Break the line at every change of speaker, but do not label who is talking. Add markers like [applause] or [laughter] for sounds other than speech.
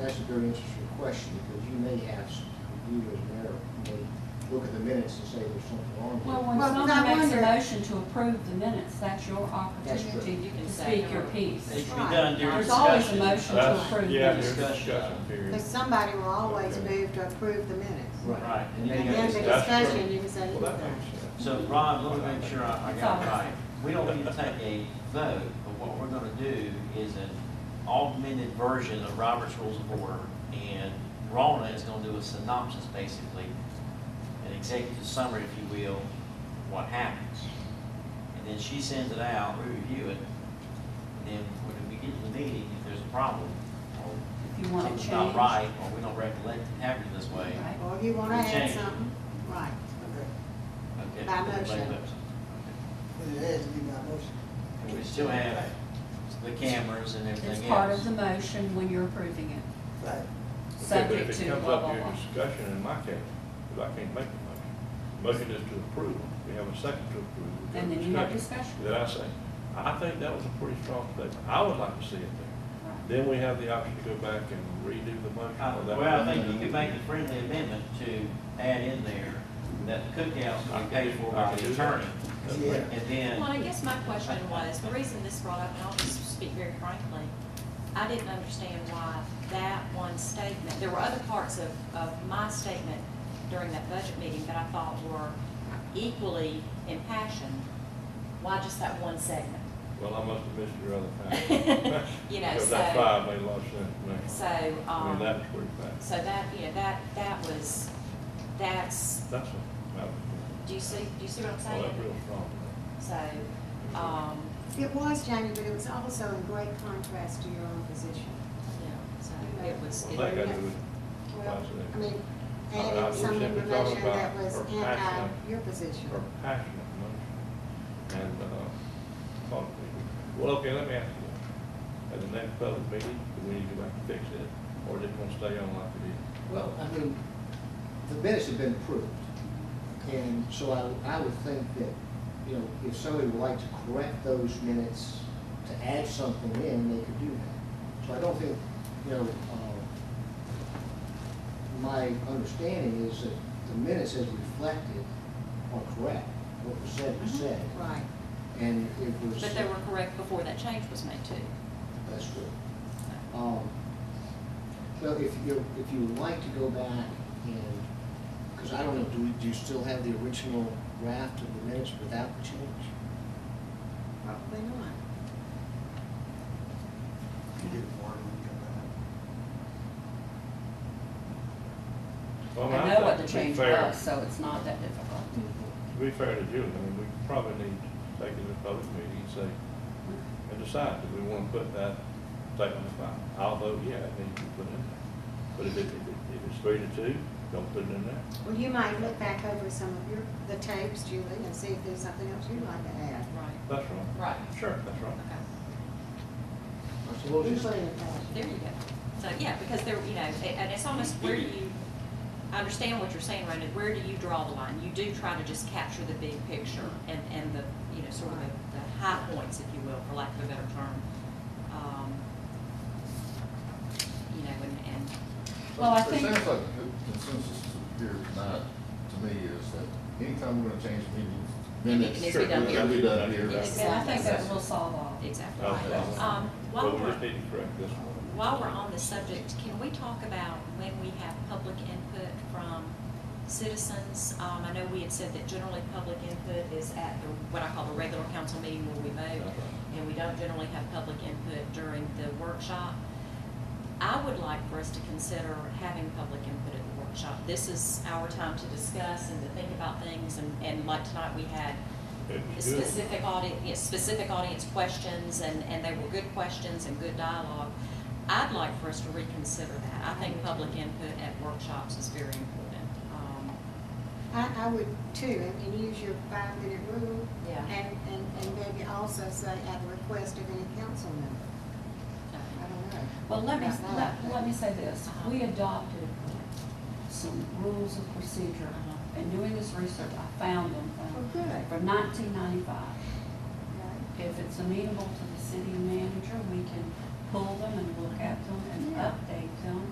that's a very interesting question, because you may have, s- you as mayor, may look at the minutes and say there's something wrong here.
Well, when
Well, I
someone makes a
wonder-
motion to approve the minutes, that's your
That's true.
opportunity
You can
to
say
speak your
no.
piece.
It should be done during
There's always a
discussion.
motion to
That's-
approve
Yeah,
minutes.
there's discussion period.
Because somebody will always
Okay.
move to approve the minutes.
Right.
And
And
they-
then the
That's true.
discussion, you can say
Well, that
anything.
makes sense.
So Rob, let me make sure I I got it right. We don't need to take a vote, but what we're gonna do is an augmented version of Robert's Rules of Order. And Rona is gonna do a synopsis, basically, an executive summary, if you will, what happens. And then she sends it out, we review it, and then when we get to the meeting, if there's a problem, or
If you want to
something's not
change.
right, or we don't recollect it happening this way,
Right.
Or if you want to
We
add
change.
something, right.
okay.
By
everybody
motion.
votes.
But it has to be by motion.
And we still have the cameras and everything else.
It's part of the motion when you're approving it,
Right.
Okay, but
subject
if it
to
comes
blah,
up
blah,
during
blah.
discussion, in my case, because I can't make the motion, motion is to approve. We have a second to approve. We
And
go to
then you have discussion.
Then I say, I think that was a pretty strong statement. I would like to see it there.
Right.
Then we have the option to go back and redo the motion.
Uh,
or that-
Well, I think you could make the friendly amendment to add in there that the cookouts will be paid for by the attorney.
Yeah.
And
Well, I
then,
guess my question was, the reason this brought up, and I'll just speak very frankly, I didn't understand why that one statement, there were other parts of, of my statement during that budget meeting that I thought were equally impassioned. Why just that one segment?
Well, I must have missed
[laughs]
your other time.
You
[laughs]
know,
Because that
so-
five made a lot of sense to me.
So,
I mean,
um,
that's pretty bad.
so that, you know, that, that was, that's,
That's a, that was,
do you see, do you see what I'm
well, that's
saying?
real strong.
So, um,
It was changing, but it was also in great contrast to your own position.
yeah, so it was.
Well, that got to do with
Well,
Absolutely.
I mean,
I- Uh, I
adding
was
some
simply
information
talking about
that was
her
anti
passion.
your position.
or passionate motion and, uh, thought we- well, okay, let me ask you, this. at the next public meeting, do we need to go back and fix it, or just want to stay on like it is?
Well, I mean, the minutes have been approved, and so I, I would think that, you know, if somebody would like to correct those minutes, to add something in, they could do that. So I don't think, you know, uh, my understanding is that the minutes as reflected are correct, what was said was said,
Right.
and it was.
Mm-hmm. But they were correct before that change was made too.
That's true. Um, Well, if you, if you would like to go back and, because I don't know, do we, do you still have the original draft of the minutes without the change?
Probably not.
You get one, you come back.
Well, mean,
I know what
think
the
to be
change
fair-
was, so it's not that difficult.
To be fair to Julie, I mean, we probably need to take it to a public meeting and say, and decide, do we want to put that statement in file? I'll vote yeah, it needs to be put in there. But if it, if it, if it's three to two, don't put it in there.
Well, you might look back over some of your, the tapes, Julie, and see if there's something else you'd like to add.
Right.
That's wrong.
Right.
Sure, that's wrong.
Okay.
I suppose it's,
Including that.
There you go. So, yeah, because there, you know, a- and it's almost where do you, I understand what you're saying, Rhonda, where do you draw the line? You do try to just capture the big picture and, and the, you know, sort of the, the high points, if you will, for lack of a better term. Um, You know, and, and,
Well, I
It
think-
sounds like the consensus here tonight, to me, is that anytime we're gonna change meetings,
It
minutes.
needs to be done
it's gotta be
here.
done here.
Yes.
And I think that will solve all.
exactly.
Okay.
Um, while
But we
we're-
just need to correct this one.
While we're on the subject, can we talk about when we have public input from citizens? Um, I know we had said that generally public input is at the, what I call the regular council meeting where we vote, and we don't generally have public input during the workshop. I would like for us to consider having public input at the workshop. This is our time to discuss and to think about things, and, and like tonight, we had
It's good.
specific audience, yes, specific audience questions, and, and they were good questions and good dialogue. I'd like for us to reconsider that. I think public input at workshops is very important. Um,
I, I would too, and- and use your five-minute rule.
Yeah.
And, and, and maybe also say at the request of any council member. I don't know.
Well, let me,
About
let,
that.
let me say this, we adopted some rules of procedure,
Uh-huh.
and doing this research, I found them
Well,
from,
good.
from nineteen ninety-five.
Right.
If it's amenable to the city manager, we can pull them and look at them and
Yeah.
update them.